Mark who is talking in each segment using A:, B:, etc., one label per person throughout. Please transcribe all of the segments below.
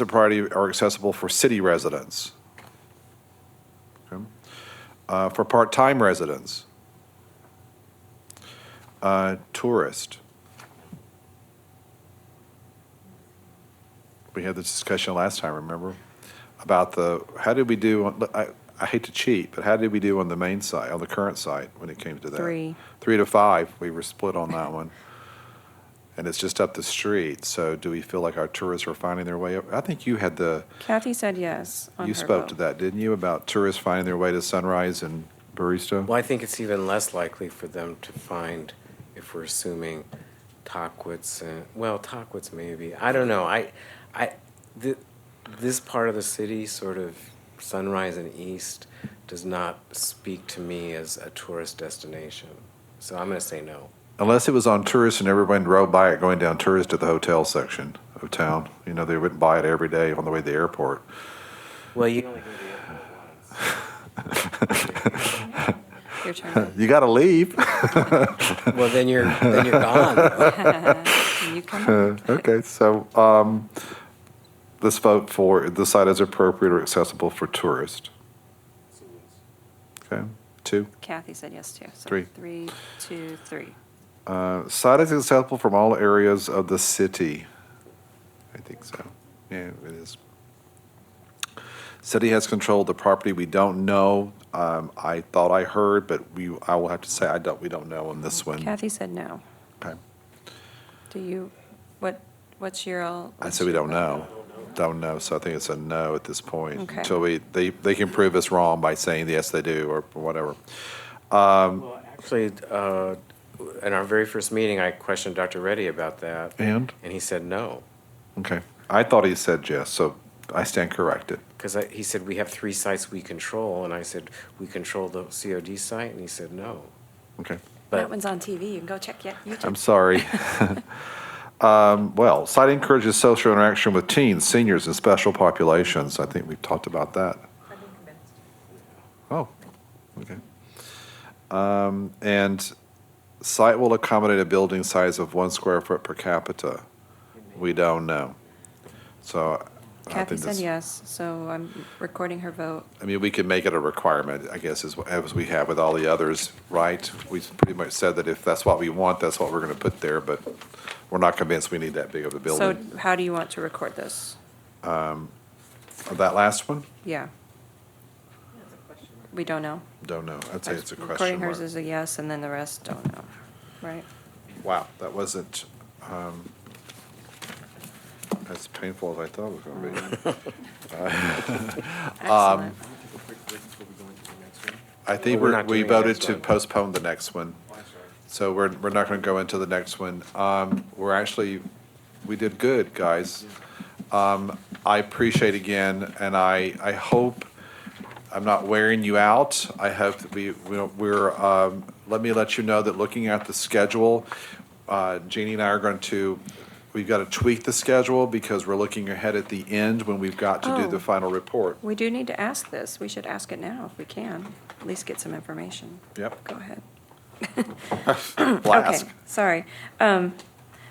A: the priority are accessible for city residents. Okay. Uh, For part-time residents. Uh, Tourist. We had this discussion last time, remember? About the, how did we do, on- I, I hate to cheat, but how did we do on the main side, on the current side, when it came to that?
B: Three.
A: Three to five, we were split on that one. And it's just up the street, so do we feel like our tourists are finding their way? up? I think you had the,
B: Kathy said yes on
A: you
B: her
A: spoke to
B: vote.
A: that, didn't you, about tourists finding their way to Sunrise and Barista?
C: Well, I think it's even less likely for them to find, if we're assuming Tockwitz and, well, Tockwitz maybe, I don't know, I, I, th- this part of the city, sort of Sunrise and East, does not speak to me as a tourist destination, so I'm gonna say no.
A: Unless it was on tourist and everyone rode by it going down tourist to the hotel section of town. You know, they wouldn't buy it every day on the way to the airport.
C: Well, you.
B: Your turn.
A: You got to leave.
C: Well, then you're, then you're gone. though.
B: Can you come?
A: Uh, okay, so um, let's vote for the site is appropriate or accessible for tourists. Okay, two.
B: Kathy said yes too. So
A: Three.
B: Three, two, three.
A: Uh, Site is accessible from all areas of the city. I think so. Yeah, it is. City has control of the property. We don't know. Um, I thought I heard, but we, I will have to say, I don't, we don't know on this one.
B: Kathy said no.
A: Okay.
B: Do you, what, what's your? all-
A: I said we don't know. Don't know, so I think it's a no at this point.
B: Okay.
A: Until we, they, they can prove us wrong by saying, yes, they do, or whatever. Um,
C: Actually, uh, in our very first meeting, I questioned Dr. Reddy about that.
A: And?
C: And he said no.
A: Okay. I thought he said yes, so I stand corrected.
C: Because he said, we have three sites we control, and I said, we control the COD site, and he said, no.
A: Okay.
B: That
C: But
B: one's on TV. You can go check yet.
A: I'm sorry. Um, Well, site encourages social interaction with teens, seniors, and special populations. I think we've talked about that. Oh, okay. Um, And site will accommodate a building size of one square foot per capita. We don't know. So I
B: Kathy
A: think
B: said
A: that's,
B: yes, so I'm recording her vote.
A: I mean, we could make it a requirement, I guess, as, as we have with all the others, right? We pretty much said that if that's what we want, that's what we're gonna put there, but we're not convinced we need that big of a
B: So
A: building.
B: how do you want to record this?
A: That last one?
B: Yeah. We don't know.
A: Don't know. I'd say it's a
B: Recording
A: question mark.
B: hers is a yes, and then the rest don't know, right?
A: Wow, that wasn't, um, as painful as I thought it was
C: Mm.
A: gonna be. Um,
B: Excellent.
A: I think
C: We're
A: we're,
C: not
A: we
C: doing the
A: voted
C: next
A: to
C: one.
A: postpone the next one. So we're, we're not gonna go into the next one. Um, we're actually, we did good, guys. Um, I appreciate again, and I, I hope I'm not wearing you out. I hope that we, we're- we're, um, let me let you know that looking at the schedule, uh, Jeannie and I are going to, we've got to tweak the schedule because we're looking ahead at the end when we've got to do the
B: Oh.
A: final report.
B: We do need to ask this. We should ask it now if we can, at least get some information.
A: Yep.
B: Go ahead.
A: Blast.
B: Okay, sorry. Um,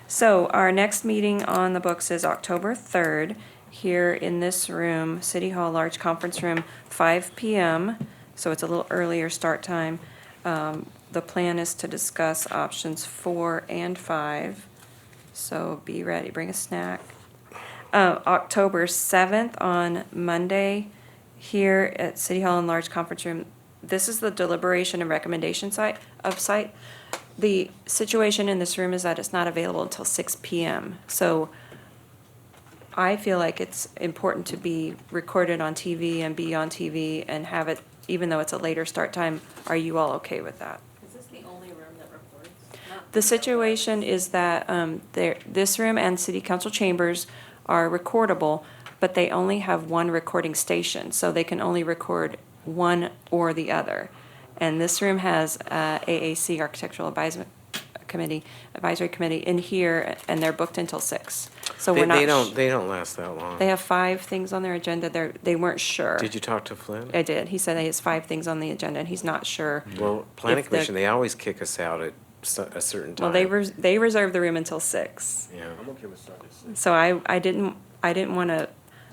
B: So our next meeting on the books is October 3rd, here in this room, City Hall, large conference room, 5 PM. So it's a little earlier start time. Um, The plan is to discuss options four and five. So be ready, bring a snack. Uh, October 7th on Monday, here at City Hall in large conference room. This is the deliberation and recommendation site, of site. The situation in this room is that it's not available until six PM. So I feel like it's important to be recorded on TV and be on TV and have it, even though it's a later start time. Are you all okay with that?
D: Is this the only room that records? Not-
B: The situation is that um, there, this room and city council chambers are recordable, but they only have one recording station, so they can only record one or the other. And this room has uh, AAC Architectural Advisement Committee, Advisory Committee in here, and they're booked until six. So
C: they
B: we're not.
C: they don't, they don't last that long.
B: They have five things on their agenda. They're, they weren't sure.
C: Did you talk to Flynn?
B: I did. He said he has five things on the agenda, and he's not sure.
C: Well, planning
B: if the-
C: commission, they always kick us out at s- a certain time.
B: Well, they res- they reserve the room until six.
C: Yeah.
B: So I, I didn't, I didn't want to